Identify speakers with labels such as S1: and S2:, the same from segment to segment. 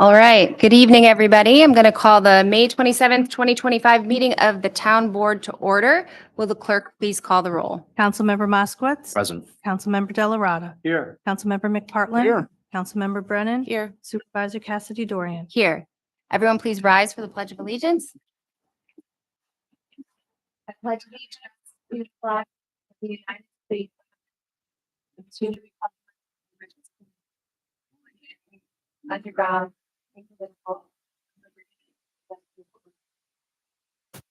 S1: All right. Good evening, everybody. I'm going to call the May 27th, 2025 meeting of the town board to order. Will the clerk please call the roll?
S2: Councilmember Moskowitz.
S3: Present.
S2: Councilmember Delarada.
S3: Here.
S2: Councilmember McPartlin.
S3: Here.
S2: Councilmember Brennan.
S1: Here.
S2: Supervisor Cassidy Dorian.
S1: Here. Everyone, please rise for the Pledge of Allegiance.
S4: I pledge allegiance to the flag of the United States. and To the republic. which is Under God. indivisible, with liberty and justice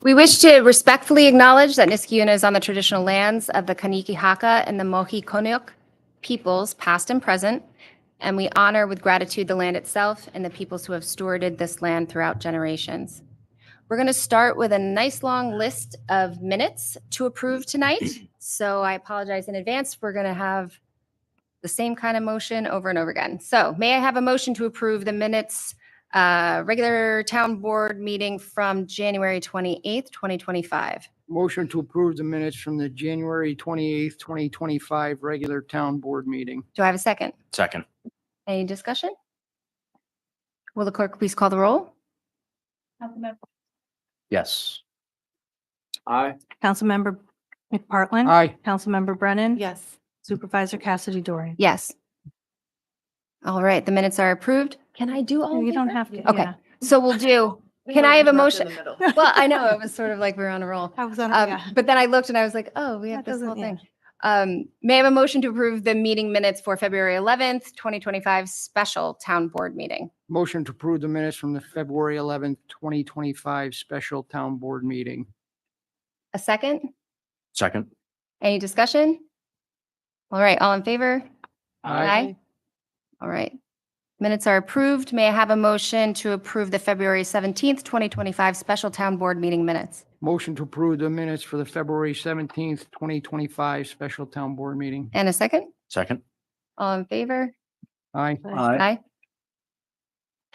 S1: We wish to respectfully acknowledge that Niskiuna is on the traditional lands of the Kaniki Haka and the Mohi Konuk peoples, past and present, and we honor with gratitude the land itself and the peoples who have stewarded this land throughout generations. We're going to start with a nice long list of minutes to approve tonight. So I apologize in advance. We're going to have the same kind of motion over and over again. So may I have a motion to approve the minutes uh, regular town board meeting from January 28th, 2025.
S5: Motion to approve the minutes from the January 28th, 2025 regular town board meeting.
S1: Do I have a second?
S3: Second.
S1: Any discussion? Will the clerk please call the roll?
S4: Councilmember
S3: Yes.
S6: Aye.
S2: Councilmember McPartlin.
S5: Aye,
S2: Councilmember Brennan.
S1: Yes.
S2: Supervisor Cassidy Dorian.
S1: Yes. All right, the minutes are approved. Can I do all?
S2: You
S1: of
S2: don't
S1: them?
S2: have to.
S1: Okay.
S2: yeah.
S1: So we'll do, can I have a motion? Well, I know, it was sort of like we were on a roll.
S2: I was on, a-
S1: Um,
S2: yeah.
S1: But then I looked and I was like, oh, we have
S2: That
S1: this
S2: doesn't-
S1: whole
S2: yeah.
S1: thing. Um, May I have a motion to approve the meeting minutes for February 11th, 2025 special town board meeting?
S5: motion to approve the minutes from the February 11th, 2025 special town board meeting.
S1: A second?
S3: Second.
S1: Any discussion? All right, all in favor? All right. Minutes are approved. May I have a motion to approve the February 17th, 2025 special town board meeting minutes?
S5: Motion to approve the minutes for the February 17th, 2025 special town board meeting.
S1: And a second?
S3: Second.
S1: All in favor?
S5: Aye,
S3: Aye.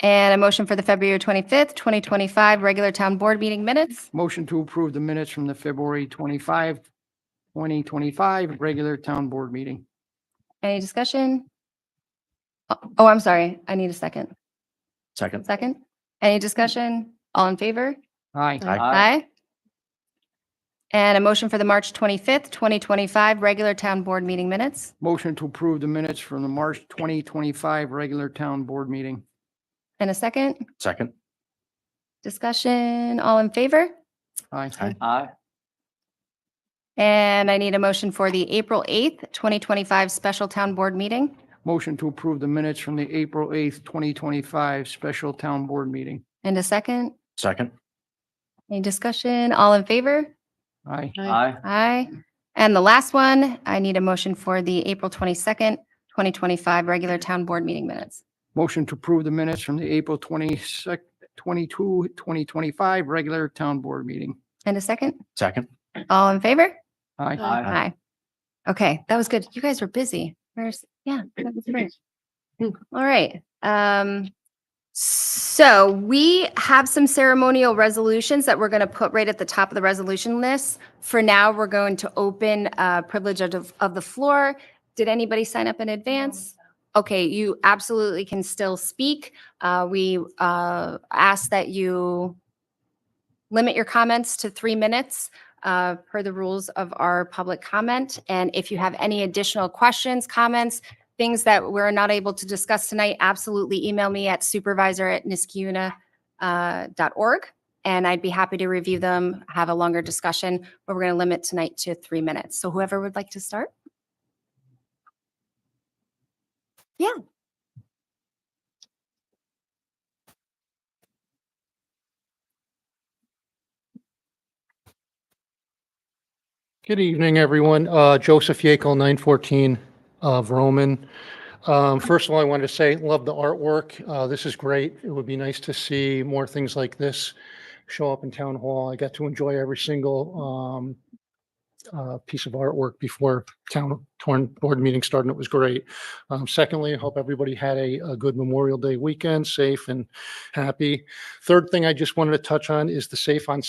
S1: And a motion for the February 25th, 2025 regular town board meeting minutes?
S5: motion to approve the minutes from the February 25, 2025 regular town board meeting.
S1: Any discussion? Oh- Oh, I'm sorry. I need a second.
S3: Second.
S1: Second? Any discussion? All in favor?
S5: Aye,
S1: Aye. And a motion for the March 25th, 2025 regular town board meeting minutes?
S5: motion to approve the minutes from the March 2025 regular town board meeting.
S1: And a second?
S3: Second.
S1: Discussion, all in favor?
S5: Aye.
S3: Aye.
S6: Aye.
S1: And I need a motion for the April 8th, 2025 special town board meeting.
S5: Motion to approve the minutes from the April 8th, 2025 special town board meeting.
S1: And a second,
S3: Second.
S1: any discussion, all in favor?
S5: Aye.
S6: Aye.
S1: Aye. And the last one, I need a motion for the April 22nd, 2025 regular town board meeting minutes.
S5: Motion to approve the minutes from the April 22nd, 22, 2025 regular town board meeting.
S1: And a second,
S3: Second.
S1: all in favor?
S5: Aye.
S6: Aye.
S1: Aye. Okay, that was good. You guys were busy. Where's, yeah, that was great. Mm, All right. Um, so we have some ceremonial resolutions that we're going to put right at the top of the resolution list. For now, we're going to open uh, privilege of, the- of the floor. Did anybody sign up in advance? Okay, you absolutely can still speak. Uh, we uh, ask that you limit your comments to three minutes uh, per the rules of our public comment. And if you have any additional questions, comments, things that we're not able to discuss tonight, absolutely email me at supervisor@niskiuna.org. And I'd be happy to review them, have a longer discussion, but we're going to limit tonight to three minutes. So whoever would like to start? Yeah.
S7: Good evening, everyone. Uh, Joseph Yekel, 914 of Roman. uh, Um, First of all, I wanted to say, love the artwork. Uh, This is great. It would be nice to see more things like this show up in Town Hall. I got to enjoy every single um, uh, piece of artwork before town torn board meeting started. It was great. Um, Secondly, I hope everybody had a a good Memorial Day weekend, safe and happy. Third thing I just wanted to touch on is the Safe on